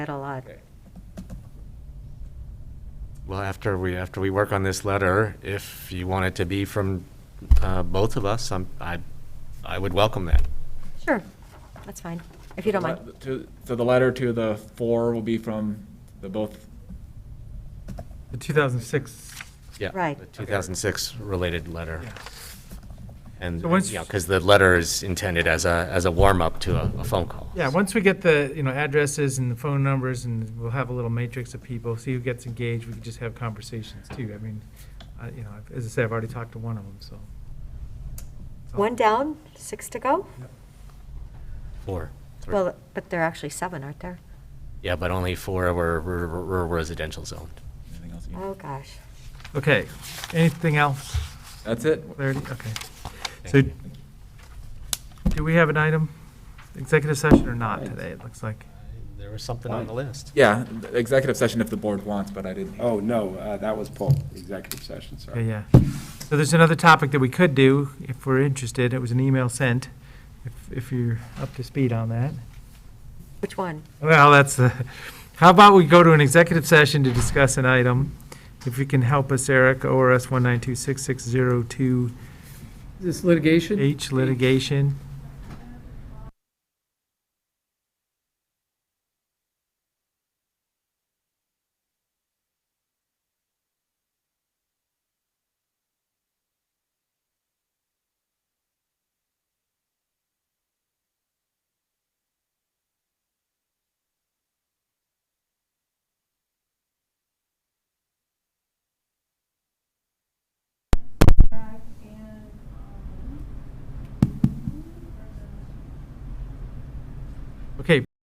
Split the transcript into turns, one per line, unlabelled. that a lot.
Okay.
Well, after we, after we work on this letter, if you want it to be from uh, both of us, I'm, I, I would welcome that.
Sure, that's fine, if you don't mind.
To- So the letter to the four will be from the both,
The 2006,
Yeah.
Right.
The 2006 related letter.
yeah.
And,
So once-
yeah, because the letter is intended as a, as a warm-up to a, a phone call.
Yeah, once we get the, you know, addresses and the phone numbers, and we'll have a little matrix of people, see who gets engaged, we can just have conversations too. I mean, I- you know, I've- as I said, I've already talked to one of them, so. So-
One down, six to go?
Four. three.
Well, but there are actually seven, aren't there?
Yeah, but only four were, were were residential zoned.
anything else? you-
Oh, gosh.
Okay, anything else?
That's it?
Clarity, okay.
Thank
So,
you.
do we have an item, executive session or not today, it looks like?
There was something on the list.
Yeah, the executive session if the board wants, but I didn't. hear.
Oh, no, uh, that was Paul, executive session,
Yeah,
sorry.
yeah. So there's another topic that we could do, if we're interested, it was an email sent, if, if you're up to speed on that.
Which one?
Well, that's, uh, how about we go to an executive session to discuss an item? If you can help us, Eric, ORS 1926602H
This litigation?
litigation.